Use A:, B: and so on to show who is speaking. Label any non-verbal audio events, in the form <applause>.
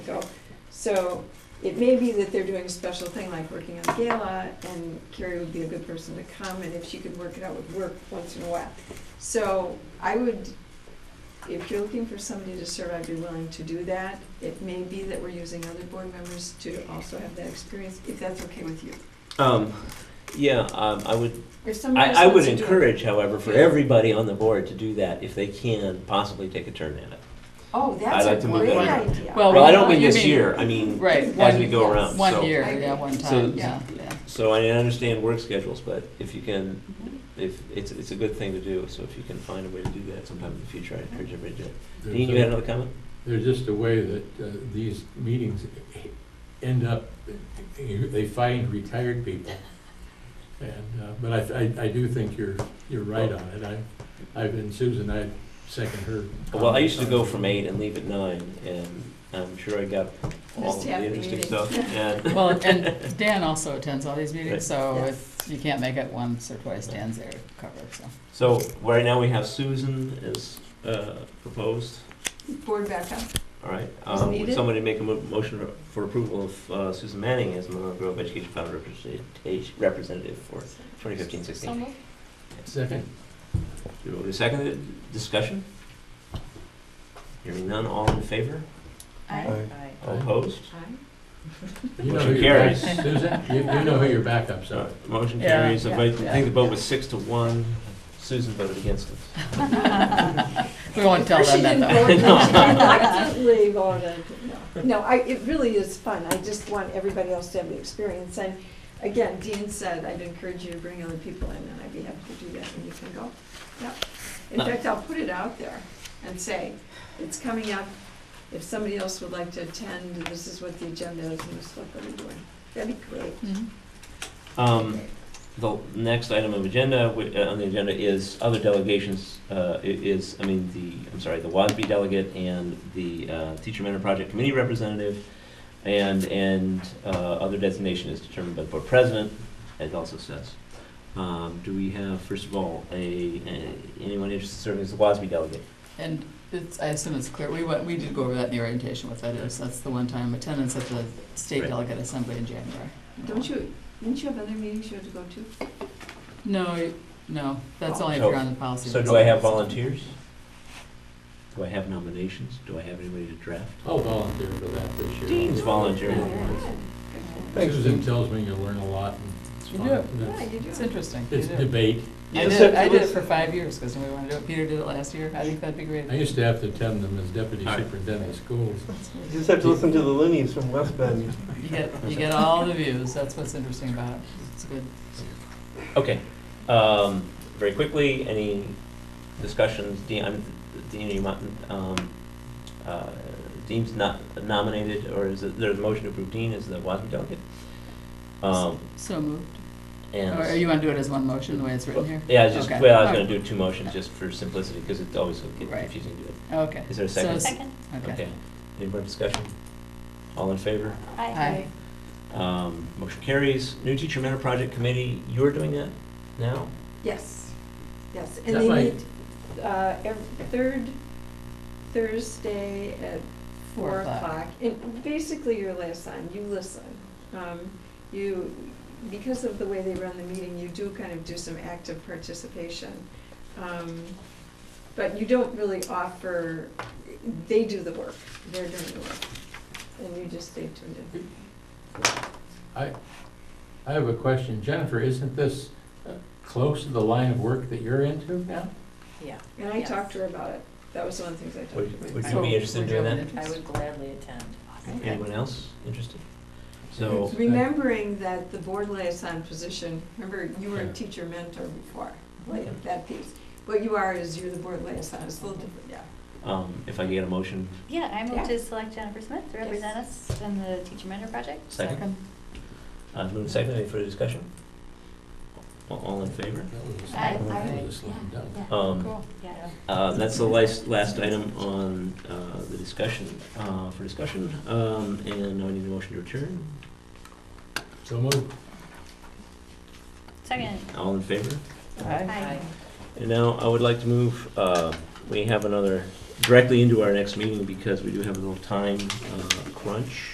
A: So it may be that they're doing a special thing like working on the gala, and Carrie would be a good person to come, and if she could work it out, would work once in a while. So I would, if you're looking for somebody to serve, I'd be willing to do that. It may be that we're using other board members to also have that experience, if that's okay with you.
B: Um, yeah, um, I would,
A: If somebody else
B: I, I would
A: wants to do it-
B: encourage, however, for
C: Yeah.
B: everybody on the board to do that if they can possibly take a turn at it.
A: Oh,
B: I'd like
A: that's a
B: to move
A: great
B: on.
A: idea.
D: Well,
B: Well, I don't
D: you
B: mean this
D: mean-
B: year, I mean,
D: Right.
B: as
D: one-
B: we go
A: yes,
B: around,
D: One
B: so-
D: year, yeah, one
B: So-
D: time, yeah, yeah.
B: So I understand work schedules, but if you can, if, it's, it's a good thing to do, so if you can find a way to do that sometime in the future, I encourage everybody to do it.
C: There's
B: Dean, you
C: a-
B: had another comment?
C: There's just a way that uh, these meetings end up, they find retired people. And, uh, but I, I- I do think you're, you're right on it. I, I've, and Susan, I second her.
B: Well, I used to go from eight and leave at nine, and I'm sure I got all of
A: Missed half
B: the
A: the
B: interesting
A: meeting. <laughs>
B: stuff, and,
D: Well, and Dan also attends all these meetings, so
A: Right.
D: if you can't make it once or twice, Dan's there to cover, so.
B: so, right now we have Susan as, uh, proposed,
A: Board backup.
B: All right,
A: Is
B: um, would
A: needed?
B: somebody make a mo- motion for approval of uh, Susan Manning as Monroe Grove Education Fund representat- representative for 2015-16?
C: Second.
B: Moved and seconded, discussion? Hearing none, all in favor?
A: Aye.
B: All opposed?
A: Aye.
C: You know
B: Motion
C: who your back-
B: carries.
C: Susan, you, you know who your backups are.
B: So, motion
D: Yeah,
B: carries. I vote- I
D: yeah.
B: think the vote was six to one. Susan voted against it.
D: We won't tell them that, though.
B: <laughs>
A: She didn't
B: No.
A: vote, she didn't actively vote, no. No, I, it really is fun, I just want everybody else to have the experience, and again, Dean said, I'd encourage you to bring other people in, and I'd be happy to do that, and you can go. Yep. In
B: No.
A: fact, I'll put it out there and say, it's coming up, if somebody else would like to attend, this is what the agenda is, and this is what they're doing. That'd be great.
D: Mhm.
B: Um, The next item of agenda, wi- uh, on the agenda is other delegations, uh, i- is, I mean, the, I'm sorry, the WASB delegate and the uh, Teacher Mentor Project Committee representative, and, and uh, other designation is determined by the board president, as also says. Um, Do we have, first of all, a, a- anyone interested in serving as the WASB delegate?
D: And it's, I assume it's clear, we went, we did go over that in the orientation, what that is, that's the one-time attendance at the state
B: Right.
D: delegate assembly in January.
A: Don't you, didn't you have other meetings you had to go to?
D: No, you- no, that's only if
B: So-
D: you're on the policy.
B: So do I have volunteers? Do I have nominations? Do I have anybody to draft?
C: I'll volunteer for that this year.
B: Dean's volunteering.
E: Thanks,
C: Susan
E: Dean.
C: tells me you learn a lot and it's
E: You
C: fun.
E: do.
C: and
A: Yeah,
C: it's-
A: you do.
D: It's interesting. you
C: It's
D: do.
C: debate.
D: I did, it- I did it for five years, because we wanted to do it, Peter did it last year, I think that'd be great.
C: I used to have to attend them as deputy
B: All right.
C: superintendent of schools.
E: You just have to listen to the loonies from West Bend.
D: You get, you get all the views, that's what's interesting about it, it's good.
B: Okay, um, very quickly, any discussions, Dean, I'm, Dean, you might, um, uh, Dean's not nominated, or is it, there's a motion to approve Dean as the WASB delegate? Um,
D: So moved.
B: and.
D: Or you want to do it as one motion, the way it's written here?
B: Yeah, I was just,
D: Okay.
B: well, I was
D: All
B: gonna
D: right.
B: do two motions, just for simplicity, because it's always so get
D: Right.
B: confusing to do it.
D: Okay.
B: Is there a second?
D: So it's- Okay.
B: Okay, any more discussion? All in favor?
D: Hi.
B: Um, motion carries, new teacher mentor project committee, you're doing that now?
A: Yes, yes,
C: Is
A: and
C: that
A: they
C: like-
A: meet, uh, every, third Thursday at four o'clock. And basically, you listen, you listen. Um, you, because of the way they run the meeting, you do kind of do some active participation. Um, but you don't really offer, they do the work, they're doing the work, and you just stay tuned in.
C: I, I have a question. Jennifer, isn't this uh, close to the line of work that you're into now?
F: Yeah,
A: And I
F: Yes.
A: talked to her about it, that was one of the things I talked to
B: Would-
A: her about.
B: would
D: I
B: you be
D: will-
B: interested in
D: would
B: doing
D: you have
B: that?
D: an
F: I
D: interest?
F: would gladly attend.
B: Anyone else interested? So,
A: Remembering that the board liaison position, remember, you were a
C: Yeah.
A: teacher mentor before,
B: Yeah.
A: like that piece. What you are is you're the board liaison, it's a little different, yeah.
B: um, if I get a motion,
F: Yeah, I
A: Yeah.
F: move to select Jennifer Smith to represent us in the Teacher Mentor Project.
B: second? Uh, moving second, any further discussion? A- All in favor?
C: That was-
F: I-
C: that
F: I-
C: was slam dunk.
B: Um,
F: Yeah.
B: uh, that's the last, last item on, uh, the discussion, uh, for discussion, um, and now I need a motion to return.
C: So moved.
F: Second.
B: All in favor?
F: Hi.
B: And now I would like to move, uh, we have another, directly into our next meeting because we do have a little time, uh, crunch.